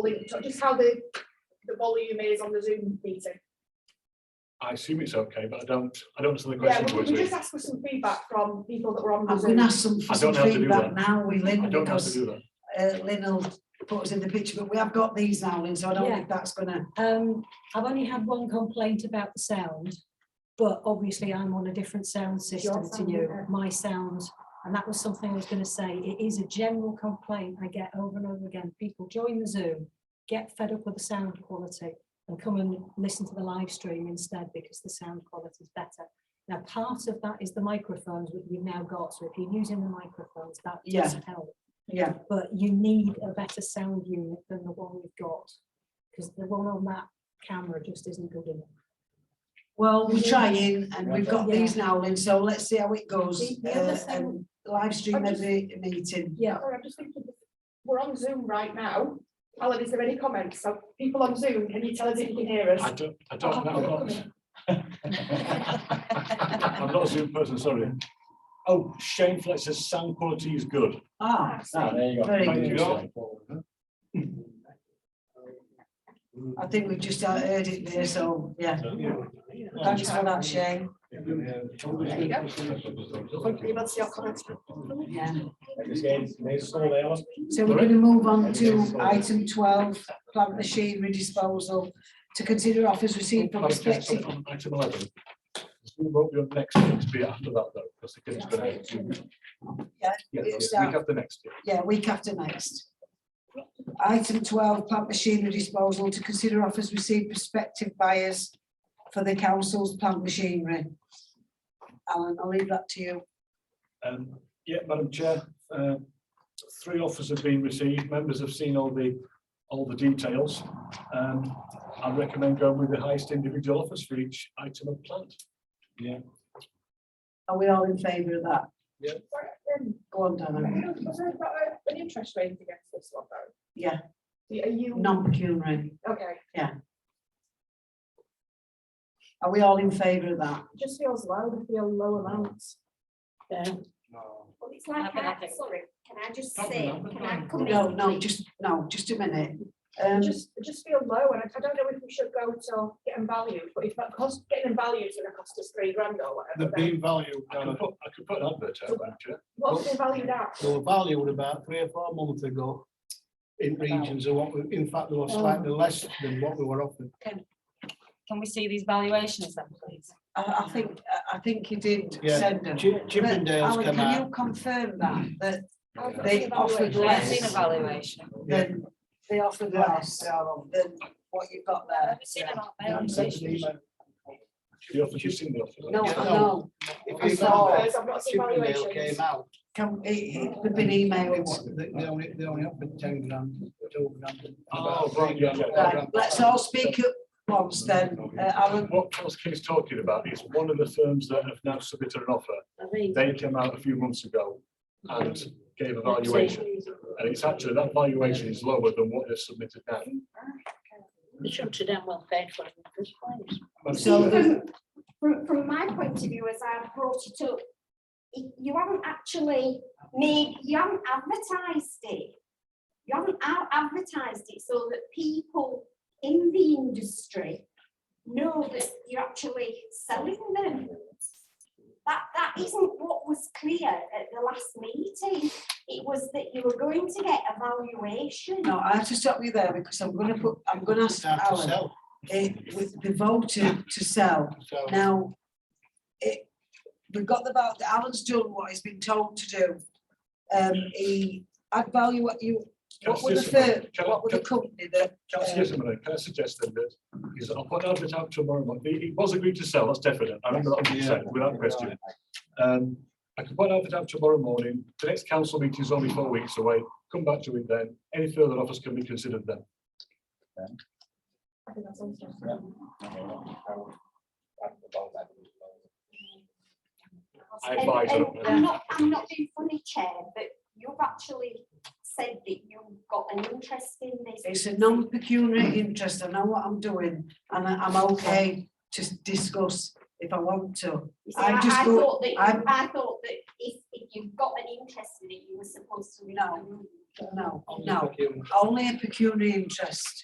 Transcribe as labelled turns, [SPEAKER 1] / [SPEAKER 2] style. [SPEAKER 1] volume, so just how the, the volume is on the Zoom meeting.
[SPEAKER 2] I assume it's okay, but I don't, I don't understand the
[SPEAKER 1] Yeah,
[SPEAKER 2] question.
[SPEAKER 1] we we
[SPEAKER 2] Boyd.
[SPEAKER 1] just ask for some feedback from people that were on the
[SPEAKER 3] I'm gonna
[SPEAKER 1] Zoom.
[SPEAKER 3] ask some for
[SPEAKER 2] I
[SPEAKER 3] some
[SPEAKER 2] don't know how to do
[SPEAKER 3] feedback
[SPEAKER 2] that.
[SPEAKER 3] now, we
[SPEAKER 2] I
[SPEAKER 3] Lynn,
[SPEAKER 2] don't know how to
[SPEAKER 3] because
[SPEAKER 2] do that.
[SPEAKER 3] uh, Lynn will put us in the picture, but we have got these now, Lynn, so I don't
[SPEAKER 4] Yeah.
[SPEAKER 3] think that's gonna,
[SPEAKER 4] Um, I've only had one complaint about the sound, but obviously I'm on a different sound system to
[SPEAKER 1] sound,
[SPEAKER 4] you,
[SPEAKER 1] yeah.
[SPEAKER 4] my sound. And that was something I was gonna say, it is a general complaint I get over and over again, people join the Zoom, get fed up with the sound quality and come and listen to the live stream instead because the sound quality is better. Now, part of that is the microphones that you've now got, so if you're using the microphones, that
[SPEAKER 3] Yeah.
[SPEAKER 4] does help
[SPEAKER 3] yeah,
[SPEAKER 4] but you need a better sound unit than the one you've got. Because the one on that camera just isn't good enough.
[SPEAKER 3] well, we're
[SPEAKER 4] Yeah.
[SPEAKER 3] trying, and we've got
[SPEAKER 4] Yeah.
[SPEAKER 3] these now, Lynn, so let's see how it goes.
[SPEAKER 4] The- the other
[SPEAKER 3] uh,
[SPEAKER 4] thing-
[SPEAKER 3] and Live stream
[SPEAKER 1] I'm just-
[SPEAKER 3] every meeting,
[SPEAKER 4] Yeah,
[SPEAKER 1] Sorry, I'm just thinking, we're on Zoom right now. Alan, is there any comments? So people on Zoom, can you tell us if you can hear
[SPEAKER 2] I
[SPEAKER 1] us?
[SPEAKER 2] don't, I don't know. I'm not a Zoom person, sorry. Oh, Shane Flex says sound quality is good.
[SPEAKER 3] ah,
[SPEAKER 5] Ah, there you go.
[SPEAKER 3] Very
[SPEAKER 2] good.
[SPEAKER 3] I think we've just uh, heard it there, so, yeah, thanks for that, Shane,
[SPEAKER 1] Won't be able to see your comments.
[SPEAKER 3] yeah.
[SPEAKER 5] Thank
[SPEAKER 3] So we're gonna move on to item twelve, plant machinery disposal, to consider offers received from prospective
[SPEAKER 2] Item eleven. Zoom won't be on next, year, it'll be after that though, because the kids gonna.
[SPEAKER 3] Yeah,
[SPEAKER 2] Yeah, it's
[SPEAKER 3] it's
[SPEAKER 2] the
[SPEAKER 6] uh,
[SPEAKER 2] week after next. year.
[SPEAKER 3] Yeah, week after next. Item twelve, plant machinery disposal to consider offers received prospective buyers for the council's plant machinery. Alan, I'll leave that to you.
[SPEAKER 2] Um, yeah, Madam Chair, uh, three offers have been received. Members have seen all the, all the details. Um, I recommend going with the highest individual offers for each item of plant.
[SPEAKER 3] Are we all in favour of that?
[SPEAKER 1] Um,
[SPEAKER 3] Go on, Donna.
[SPEAKER 1] Was there about a- uh, an interest rate against this one though?
[SPEAKER 3] Yeah,
[SPEAKER 1] Are you,
[SPEAKER 3] non-pecuniary.
[SPEAKER 1] okay,
[SPEAKER 3] Are we all in favour of that?
[SPEAKER 1] just feels low, it feel low amounts. Yeah.
[SPEAKER 6] Well, it's like, I- sorry, can I just
[SPEAKER 2] Don't
[SPEAKER 6] say,
[SPEAKER 2] remember.
[SPEAKER 6] can I come in?
[SPEAKER 3] No, no,
[SPEAKER 6] please?
[SPEAKER 3] just, no, just a minute. Um,
[SPEAKER 1] It just, it just feel low and I, I don't know if we should go to getting valued, but if that cost, getting them valued is gonna cost us three grand or
[SPEAKER 7] The
[SPEAKER 1] whatever. then
[SPEAKER 7] beam value,
[SPEAKER 2] I could
[SPEAKER 7] Donna,
[SPEAKER 2] put, I could put an advert out, Madam Chair.
[SPEAKER 1] What's the value at?
[SPEAKER 7] they were valued about three or four months ago in regions of what, we- in fact, they were
[SPEAKER 3] Oh.
[SPEAKER 7] slightly less than what we were offered.
[SPEAKER 8] Can we see these valuations then, please?
[SPEAKER 3] I, I think, I think you did
[SPEAKER 7] Yeah.
[SPEAKER 3] send them.
[SPEAKER 7] Chi-
[SPEAKER 3] But
[SPEAKER 7] Chippendales
[SPEAKER 3] Alan,
[SPEAKER 7] come
[SPEAKER 3] can
[SPEAKER 7] out,
[SPEAKER 3] you um, confirm that, that
[SPEAKER 1] How much
[SPEAKER 3] they
[SPEAKER 1] the
[SPEAKER 3] offered
[SPEAKER 1] valuation?
[SPEAKER 8] I've
[SPEAKER 3] less?
[SPEAKER 8] seen a valuation.
[SPEAKER 3] than they offered less than what you've got there.
[SPEAKER 8] I've seen an
[SPEAKER 7] Yeah, I'm sending
[SPEAKER 8] valuation.
[SPEAKER 7] an email.
[SPEAKER 2] The offers, you've seen the offers.
[SPEAKER 3] No,
[SPEAKER 7] Yeah,
[SPEAKER 3] no,
[SPEAKER 7] If
[SPEAKER 1] I
[SPEAKER 7] you
[SPEAKER 3] Oh.
[SPEAKER 1] saw
[SPEAKER 7] remember,
[SPEAKER 1] those, I've not seen
[SPEAKER 7] Chippendale
[SPEAKER 1] valuations.
[SPEAKER 7] came out.
[SPEAKER 3] can, it, it could have been
[SPEAKER 7] They
[SPEAKER 3] emailed.
[SPEAKER 7] wa- they- they only, they only offered ten grand, two grand.
[SPEAKER 2] Oh, right, yeah, yeah.
[SPEAKER 3] Right, let's all speak at once then, uh, Alan,
[SPEAKER 2] What Charles King's talking about is one of the firms that have now submitted an offer. They came out a few months ago and gave a valuation. And it's actually, that valuation is lower than what they've submitted now.
[SPEAKER 8] It should have done well paid for in the first place.
[SPEAKER 2] Madam
[SPEAKER 3] So-
[SPEAKER 2] Chair,
[SPEAKER 6] Even From, from my point of view, as I've brought it up, y- you haven't actually made, you haven't advertised it. You haven't out advertised it so that people in the industry know that you're actually selling them. That, that isn't what was clear at the last meeting. It was that you were going to get a valuation.
[SPEAKER 3] no, I have to stop you there because I'm gonna put, I'm gonna ask
[SPEAKER 7] Start to
[SPEAKER 3] Alan.
[SPEAKER 7] sell,
[SPEAKER 3] It, with the voted to sell,
[SPEAKER 7] so.
[SPEAKER 3] now, it, we've got the, val- Alan's done what he's been told to do. Um, he, I'd value what you,
[SPEAKER 2] Can I
[SPEAKER 3] what were the
[SPEAKER 2] suggest something?
[SPEAKER 3] firm,
[SPEAKER 2] Can I-
[SPEAKER 3] what were the
[SPEAKER 2] can-
[SPEAKER 3] company that,
[SPEAKER 2] Can I suggest something? Can I suggest then that, is I'll put an advert out tomorrow month. It it was agreed to sell, that's definite. I remember that being said without question. Um, I could put an advert out tomorrow morning. The next council meeting is only four weeks away. Come back to it then. Any further offers can be considered then.
[SPEAKER 1] I think that's all.
[SPEAKER 2] I
[SPEAKER 6] And-
[SPEAKER 2] advise
[SPEAKER 6] and
[SPEAKER 2] it.
[SPEAKER 6] I'm not, I'm not being funny, Chair, but you've actually said that you've got an interest in this.
[SPEAKER 3] it's a non-pecuniary interest, I know what I'm doing, and I- I'm okay to discuss if I want to.
[SPEAKER 6] You see,
[SPEAKER 3] I'm
[SPEAKER 6] I I
[SPEAKER 3] just go-
[SPEAKER 6] thought that, you-
[SPEAKER 3] I'm-
[SPEAKER 6] I thought that if, if you've got an interest in it, you were supposed to.
[SPEAKER 3] No.
[SPEAKER 6] remove
[SPEAKER 3] No, no, only a pecuniary interest.